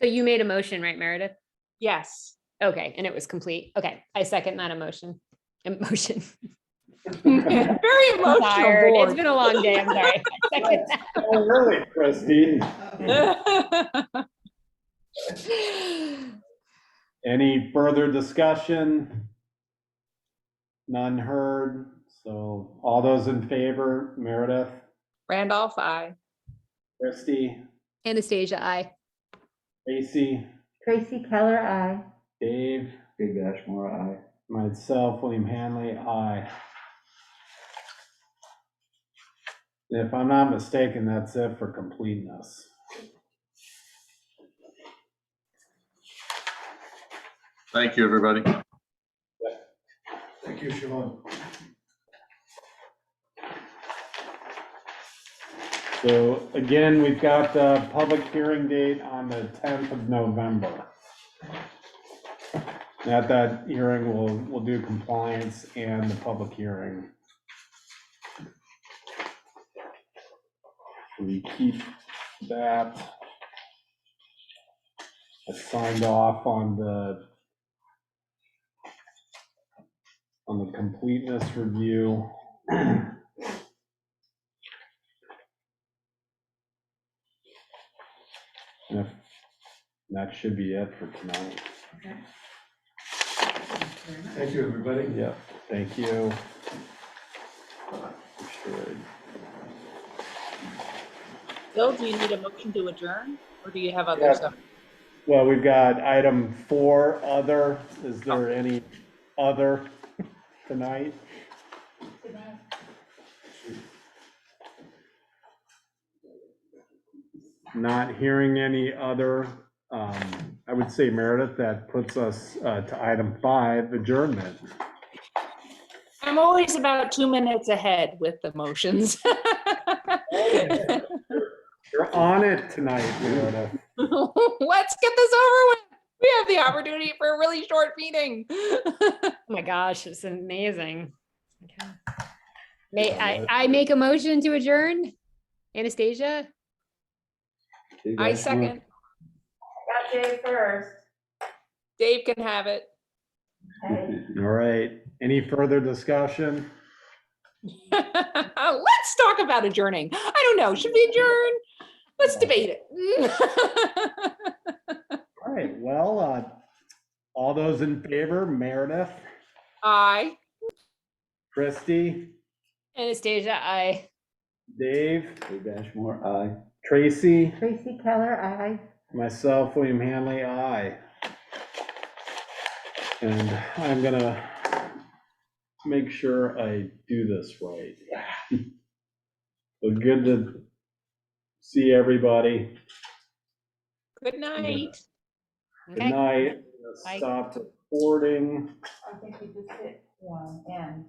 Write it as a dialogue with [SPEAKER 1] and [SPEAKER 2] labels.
[SPEAKER 1] So you made a motion, right, Meredith?
[SPEAKER 2] Yes.
[SPEAKER 1] Okay, and it was complete. Okay, I second that emotion. Emotion.
[SPEAKER 3] Oh,
[SPEAKER 2] Very
[SPEAKER 1] I'm tired. It's
[SPEAKER 2] emotional
[SPEAKER 1] been a long day. I'm sorry. I second
[SPEAKER 3] Oh, really, Christine?
[SPEAKER 2] board.
[SPEAKER 1] that.
[SPEAKER 3] Any further discussion? None heard, so all those in favor, Meredith,
[SPEAKER 2] Randolph, I.
[SPEAKER 3] Christie,
[SPEAKER 1] Anastasia, I.
[SPEAKER 3] Tracy,
[SPEAKER 4] Tracy Keller, I.
[SPEAKER 3] Dave,
[SPEAKER 5] Dave Ashmore, aye.
[SPEAKER 3] myself, William Hanley, aye. If I'm not mistaken, that's it for completeness.
[SPEAKER 6] Thank you, everybody.
[SPEAKER 5] Thank you, Sean.
[SPEAKER 3] So again, we've got the public hearing date on the 10th of November. At that hearing, we'll, we'll do compliance and the public hearing. We keep that. I signed off on the on the completeness review. And if- that should be it for tonight.
[SPEAKER 5] Thank you, everybody.
[SPEAKER 3] Yep, thank you. Should-
[SPEAKER 2] Bill, do you need a motion to adjourn or do you have
[SPEAKER 3] Yeah.
[SPEAKER 2] other stuff?
[SPEAKER 3] Well, we've got item four, other. Is there any other tonight? Not hearing any other. um, I would say Meredith, that puts us uh, to item five, adjournment.
[SPEAKER 2] I'm always about two minutes ahead with the motions.
[SPEAKER 3] You're on it tonight, Meredith.
[SPEAKER 2] Let's get this over with. We have the opportunity for a really short meeting.
[SPEAKER 1] Oh my gosh, it's amazing. Okay. May, I, I make a motion to adjourn? Anastasia?
[SPEAKER 2] I second.
[SPEAKER 4] Got Dave first.
[SPEAKER 2] Dave can have it.
[SPEAKER 4] Okay.
[SPEAKER 3] All right, any further discussion?
[SPEAKER 2] Let's talk about adjourning. I don't know. Should we adjourn? Let's debate it.
[SPEAKER 3] All right, well, uh, all those in favor, Meredith,
[SPEAKER 2] Aye.
[SPEAKER 3] Christie,
[SPEAKER 1] Anastasia, I.
[SPEAKER 3] Dave,
[SPEAKER 5] Dave Ashmore, aye.
[SPEAKER 3] Tracy,
[SPEAKER 4] Tracy Keller, I.
[SPEAKER 3] myself, William Hanley, aye. And I'm gonna make sure I do this right. Well, good to see everybody.
[SPEAKER 2] Good night.
[SPEAKER 3] Good
[SPEAKER 1] Okay.
[SPEAKER 3] night.
[SPEAKER 1] Bye.
[SPEAKER 3] Stop recording.
[SPEAKER 4] I think we just hit one and.